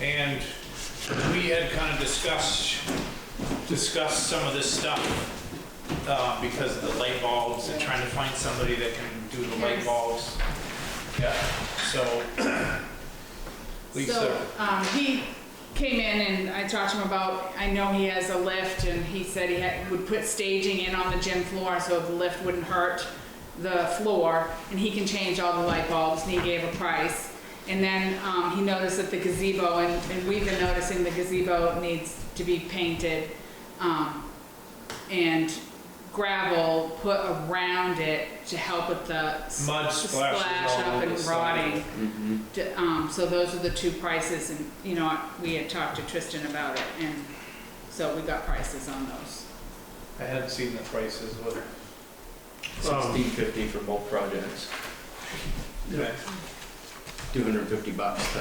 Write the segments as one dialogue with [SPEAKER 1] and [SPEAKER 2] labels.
[SPEAKER 1] And we had kind of discussed, discussed some of this stuff uh, because of the light bulbs and trying to find somebody that can do the light
[SPEAKER 2] Yes.
[SPEAKER 1] bulbs. Yeah, so
[SPEAKER 2] So,
[SPEAKER 1] Lisa,
[SPEAKER 2] um, he came in and I talked to him about, I know he has a lift and he said he had, would put staging in on the gym floor so the lift wouldn't hurt the floor and he can change all the light bulbs and he gave a price. And then, um, he noticed that the gazebo, and, and we've been noticing the gazebo needs to be painted, um, and gravel put around it to help with the s-
[SPEAKER 1] Mud splashes
[SPEAKER 2] splash
[SPEAKER 1] all
[SPEAKER 2] up
[SPEAKER 1] over
[SPEAKER 2] and
[SPEAKER 1] the side.
[SPEAKER 2] rotting. To- Um, so those are the two prices and, you know, we had talked to Tristan about it and so we got prices on those.
[SPEAKER 1] I hadn't seen the prices, what,
[SPEAKER 3] Sixteen fifty for both projects, two hundred and fifty bucks. uh,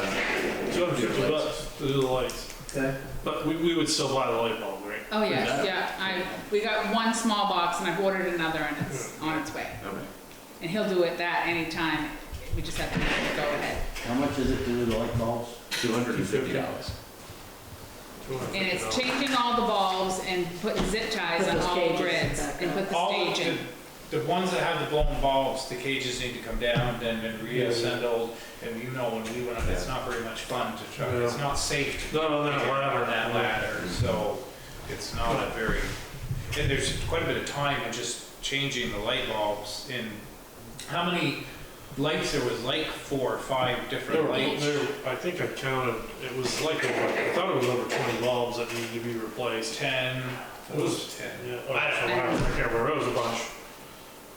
[SPEAKER 4] Two hundred fifty
[SPEAKER 3] lights.
[SPEAKER 4] bucks to do the lights,
[SPEAKER 3] Okay.
[SPEAKER 4] but we, we would still buy the light bulb, right?
[SPEAKER 2] Oh, yeah,
[SPEAKER 3] Yeah.
[SPEAKER 2] yeah, I, we got one small box and I've ordered another and it's on its way.
[SPEAKER 3] Okay.
[SPEAKER 2] And he'll do it that anytime, we just have to go ahead.
[SPEAKER 5] How much is it to do the light bulbs?
[SPEAKER 3] Two hundred and fifty dollars.
[SPEAKER 2] And it's changing all the bulbs and putting zip ties
[SPEAKER 6] Put
[SPEAKER 2] on
[SPEAKER 6] those
[SPEAKER 2] all the
[SPEAKER 6] cages
[SPEAKER 2] grids
[SPEAKER 6] back
[SPEAKER 2] and
[SPEAKER 6] up.
[SPEAKER 2] put the
[SPEAKER 1] All of
[SPEAKER 2] staging.
[SPEAKER 1] the, the ones that have the blown bulbs, the cages need to come down and then reassembled. And you know, when we went up, it's not very much fun to try, it's not safe
[SPEAKER 4] No, no,
[SPEAKER 1] to
[SPEAKER 4] no,
[SPEAKER 1] get
[SPEAKER 4] whatever.
[SPEAKER 1] on that ladder, so it's not a very, and there's quite a bit of time in just changing the light bulbs in, how many lights, there was like four or five
[SPEAKER 4] There
[SPEAKER 1] different
[SPEAKER 4] were,
[SPEAKER 1] lights.
[SPEAKER 4] there, I think I counted, it was like, over- I thought it was over twenty bulbs that needed to be replaced.
[SPEAKER 1] Ten, it was ten.
[SPEAKER 4] Yeah, or- I don't know, I can't remember, it was a bunch.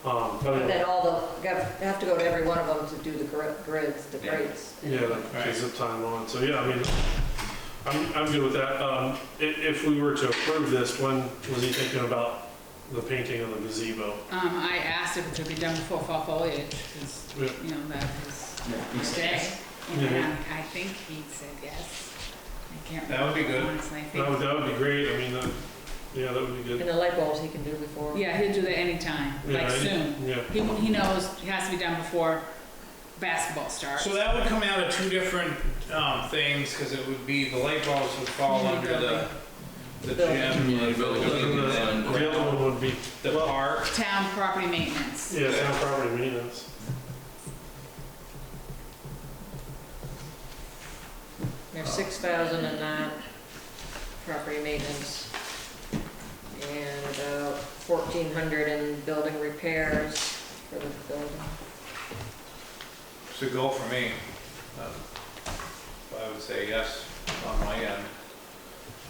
[SPEAKER 4] Um,
[SPEAKER 6] And
[SPEAKER 4] but,
[SPEAKER 6] then all the, got- have to go to every one of them to do the gr- grids, the
[SPEAKER 3] Yeah.
[SPEAKER 6] grates.
[SPEAKER 4] yeah, like, takes up time on, so yeah, I mean, I'm, I'm good with that. Um, i- if we were to approve this, when was he thinking about the painting of the gazebo?
[SPEAKER 2] Um, I asked if it could be done before fall foliage, 'cause,
[SPEAKER 4] Yeah.
[SPEAKER 2] you know, that was
[SPEAKER 3] He's-
[SPEAKER 2] today. And
[SPEAKER 4] Mhm.
[SPEAKER 2] I I think he said yes. I can't
[SPEAKER 1] That would be
[SPEAKER 2] remember,
[SPEAKER 1] good.
[SPEAKER 2] honestly. I
[SPEAKER 4] That would,
[SPEAKER 2] think-
[SPEAKER 4] that would be great, I mean, that, yeah, that would be good.
[SPEAKER 6] And the light bulbs he can do before.
[SPEAKER 2] Yeah, he'll do that anytime,
[SPEAKER 4] Yeah,
[SPEAKER 2] like
[SPEAKER 4] I-
[SPEAKER 2] soon.
[SPEAKER 4] Yeah,
[SPEAKER 2] He, he knows it has to be done before basketball starts.
[SPEAKER 1] So that would come out of two different, um, things, cause it would be, the light bulbs would fall under the, the
[SPEAKER 6] Building.
[SPEAKER 1] gym,
[SPEAKER 3] Community building.
[SPEAKER 4] And then The other one would be,
[SPEAKER 1] the park.
[SPEAKER 2] Town property maintenance.
[SPEAKER 4] yeah, town property maintenance.
[SPEAKER 6] There's six thousand in that, property maintenance. And about fourteen hundred in building repairs for the building.
[SPEAKER 1] It's a goal for me. Um, I would say yes on my end.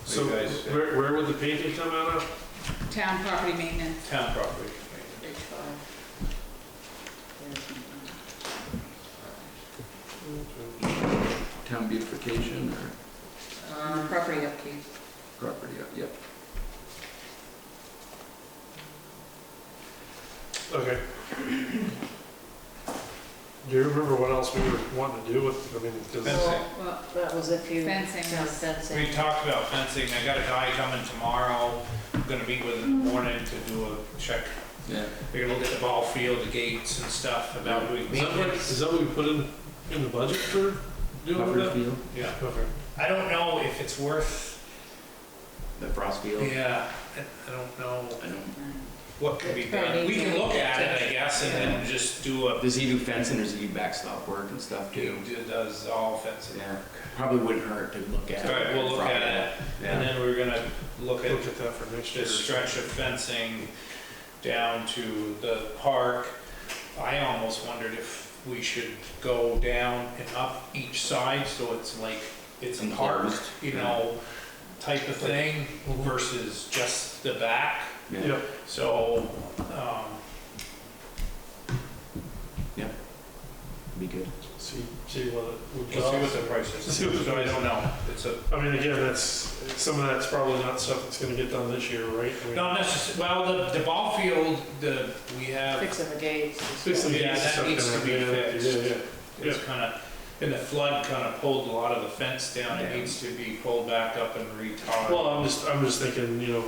[SPEAKER 4] So
[SPEAKER 1] You guys-
[SPEAKER 4] where, where would the painting come out of?
[SPEAKER 2] Town property maintenance.
[SPEAKER 1] Town property.
[SPEAKER 6] Page five.
[SPEAKER 3] Town beautification or
[SPEAKER 6] Um, property upkeep.
[SPEAKER 3] property, uh, yep.
[SPEAKER 4] Okay. Do you remember what else we were wanting to do with, I mean, 'cause-
[SPEAKER 1] Fencing.
[SPEAKER 2] Well,
[SPEAKER 6] That was if you.
[SPEAKER 2] Fencing.
[SPEAKER 6] Yeah,
[SPEAKER 1] We
[SPEAKER 6] Fencing.
[SPEAKER 1] talked about fencing. I got a guy coming tomorrow. I'm gonna meet with him in the morning to do a check.
[SPEAKER 3] Yeah.
[SPEAKER 1] They're gonna look at the ball field, the gates and stuff about doing
[SPEAKER 4] is that what, is
[SPEAKER 1] maintenance.
[SPEAKER 4] that what we put in, in the budget for doing
[SPEAKER 3] Puffer
[SPEAKER 4] that?
[SPEAKER 3] field,
[SPEAKER 1] Yeah.
[SPEAKER 4] Okay.
[SPEAKER 1] I don't know if it's worth,
[SPEAKER 3] the frost field.
[SPEAKER 1] yeah, I- I don't know
[SPEAKER 3] I don't-
[SPEAKER 1] what can be done. We can look at it, I guess, and then just do a,
[SPEAKER 3] Does he do fencing or does he do backstop work and stuff
[SPEAKER 1] he
[SPEAKER 3] too?
[SPEAKER 1] does all fencing.
[SPEAKER 3] Yeah, probably wouldn't hurt to look at.
[SPEAKER 1] All right, we'll look at it. And
[SPEAKER 3] Yeah.
[SPEAKER 1] then we're gonna look at
[SPEAKER 4] Look at that for next year.
[SPEAKER 1] this stretch of fencing down to the park. I almost wondered if we should go down and up each side, so it's like, it's a park,
[SPEAKER 3] Enclosed,
[SPEAKER 1] you
[SPEAKER 3] yeah.
[SPEAKER 1] know, type of thing
[SPEAKER 4] Mhm.
[SPEAKER 1] versus just the back,
[SPEAKER 3] Yeah.
[SPEAKER 4] Yep,
[SPEAKER 1] so, um,
[SPEAKER 3] Be good.
[SPEAKER 4] see, see what it would
[SPEAKER 1] let's see what
[SPEAKER 4] cost.
[SPEAKER 1] the price is.
[SPEAKER 4] See what the
[SPEAKER 1] So I
[SPEAKER 4] price is.
[SPEAKER 1] don't know, it's a,
[SPEAKER 4] I mean, again, that's, some of that's probably not stuff that's gonna get done this year, right? I mean,
[SPEAKER 1] not necessarily, well, the, the ball field, the, we have.
[SPEAKER 6] Fixing the gates. and stuff.
[SPEAKER 4] Fixing the
[SPEAKER 1] Yeah,
[SPEAKER 4] gates and
[SPEAKER 1] that
[SPEAKER 4] stuff.
[SPEAKER 1] needs to
[SPEAKER 4] kinda,
[SPEAKER 1] be
[SPEAKER 4] yeah,
[SPEAKER 1] fixed.
[SPEAKER 4] Yeah, yeah.
[SPEAKER 1] It's kind of, and the flood kind of pulled a lot of the fence down. It
[SPEAKER 3] Yeah.
[SPEAKER 1] needs to be pulled back up and re-tarred.
[SPEAKER 4] Well, I'm just, I'm just thinking, you know,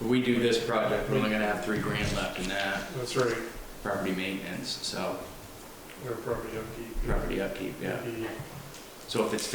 [SPEAKER 3] If we do this project, we're only gonna have three grand left in that,
[SPEAKER 4] that's right,
[SPEAKER 3] property maintenance, so,
[SPEAKER 4] or property upkeep.
[SPEAKER 3] property upkeep, yeah. So if it's